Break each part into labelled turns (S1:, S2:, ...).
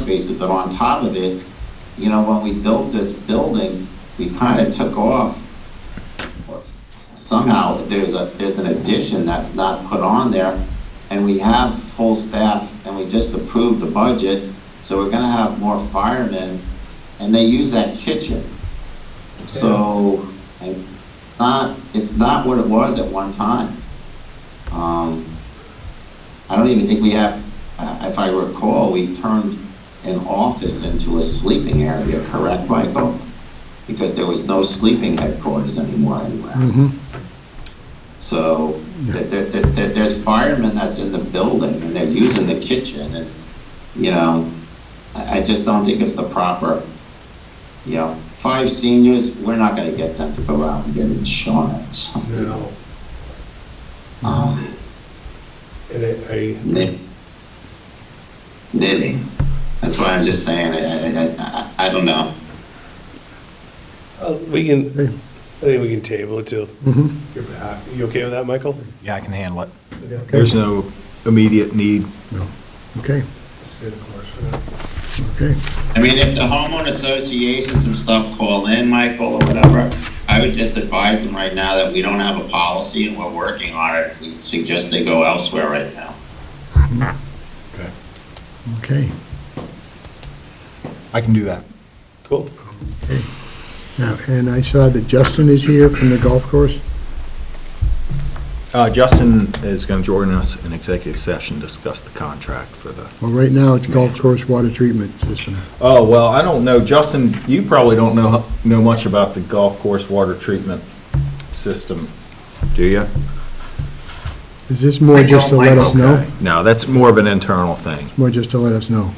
S1: spaces, but on top of it, you know, when we built this building, we kind of took off. Somehow, there's a, there's an addition that's not put on there, and we have full staff, and we just approved the budget, so we're gonna have more firemen, and they use that kitchen. So, and not, it's not what it was at one time. Um, I don't even think we have, uh, if I recall, we turned an office into a sleeping area, correct, Michael? Because there was no sleeping headquarters anymore anywhere.
S2: Mhm.
S1: So there, there, there- there's firemen that's in the building and they're using the kitchen and, you know, I, I just don't think it's the proper, you know, five seniors, we're not gonna get them to go out and get insurance.
S3: No,
S1: Um,
S3: and I, I,
S1: Knit- Knitting. That's why I'm just saying, I, I- I, I, I don't know.
S3: uh, we can, I think we can table it too.
S2: Mhm.
S3: You're back. You okay with that, Michael?
S4: Yeah, I can handle it.
S3: Okay.
S4: There's no immediate need.
S2: Okay,
S3: Stay the course for now.
S2: okay.
S1: I mean, if the homeowner associations and stuff call in, Michael, or whatever, I would just advise them right now that we don't have a policy and we're working on it. We suggest they go elsewhere right now.
S2: Okay.
S4: I can do that.
S3: Cool.
S2: Now, and I saw that Justin is here from the golf course.
S4: Uh, Justin is going to join us in executive session, discuss the contract for the.
S2: Well, right now, it's golf course water treatment system.
S4: Oh, well, I don't know. Justin, you probably don't know, know much about the golf course water treatment system, do you?
S2: Is this more just to let us know?
S4: Okay. No, that's more of an internal thing.
S2: More just to let us know?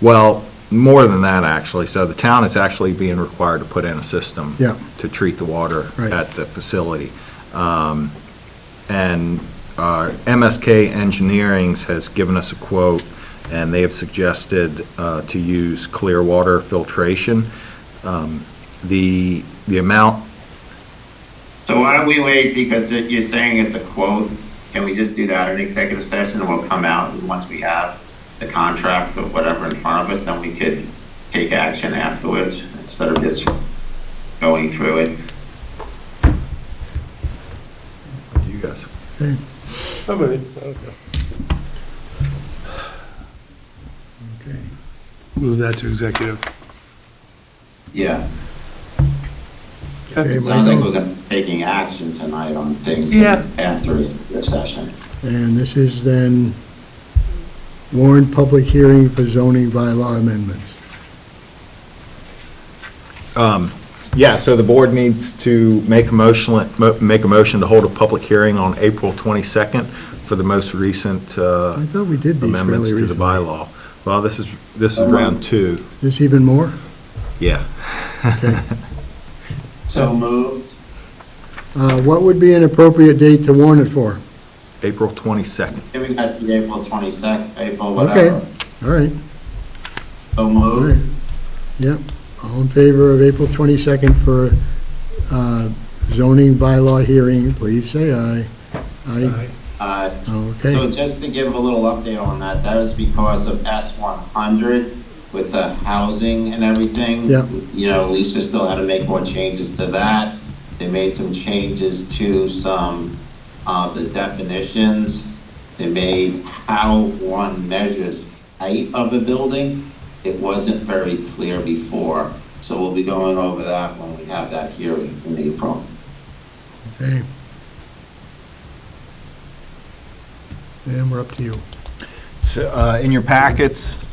S4: Well, more than that, actually. So the town is actually being required to put in a system.
S2: Yeah.
S4: To treat the water
S2: Right.
S4: at the facility. Um, And uh, MSK Engineering's has given us a quote, and they have suggested uh, to use clear water filtration. Um, The, the amount,
S1: So why don't we wait, because it- you're saying it's a quote, can we just do that in executive session, and we'll come out, and once we have the contracts or whatever in front of us, then we could take action afterwards, instead of just going through it.
S4: you guys,
S2: Okay,
S3: I'm ready. Okay.
S2: okay.
S3: Move that to executive.
S1: Yeah,
S2: Okay,
S1: it sounds like
S2: Michael.
S1: we're gonna, taking action tonight on things
S3: Yeah.
S1: after the session.
S2: And this is then warned public hearing for zoning bylaw amendments.
S4: Yeah, so the board needs to make a motion, mo- make a motion to hold a public hearing on April 22nd for the most recent uh,
S2: I thought we did these fairly
S4: amendments to the
S2: recently.
S4: bylaw. Well, this is, this is round two,
S2: Is this even more?
S4: yeah.
S2: Okay.
S1: So moved.
S2: Uh, What would be an appropriate date to warn it for?
S4: April 22nd.
S1: Giving us the April twenty-second, April
S2: Okay,
S1: whatever.
S2: all right,
S1: So
S2: all right.
S1: moved.
S2: Yep, all in favor of April 22nd for uh, zoning bylaw hearing, please say aye. Aye,
S1: Uh, So
S2: okay,
S1: just to give a little update on that, that was because of S one hundred with the housing and everything.
S2: Yeah.
S1: You know, Lisa still had to make more changes to that. They made some changes to some of the definitions. They made how one measures height of a building. It wasn't very clear before, so we'll be going over that when we have that hearing in April.
S2: okay. And we're up to you.
S4: So, uh, in your packets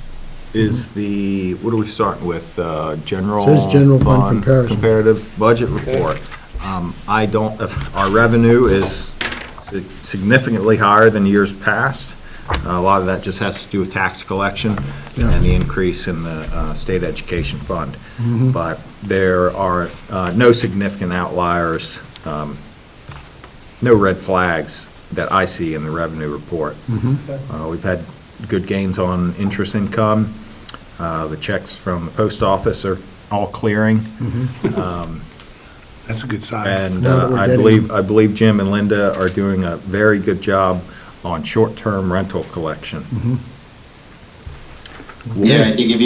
S4: is the, what are we starting with? Uh, General.
S2: Says general fund comparison.
S4: Comparative budget report. Um, I don't, our revenue is significantly higher than years past. uh, A lot of that just has to do with tax collection
S2: Yeah.
S4: and the increase in the uh, state education fund. But there are uh, no significant outliers, um, no red flags that I see in the revenue report. Uh, We've had good gains on interest income. Uh, The checks from the post office are all clearing.
S3: That's a good sign.
S4: And
S2: Now that
S4: uh,
S2: we're
S4: I
S2: getting-
S4: believe, I believe Jim and Linda are doing a very good job
S2: Mm-hmm.
S4: on short-term rental collection.
S1: Yeah, I think if you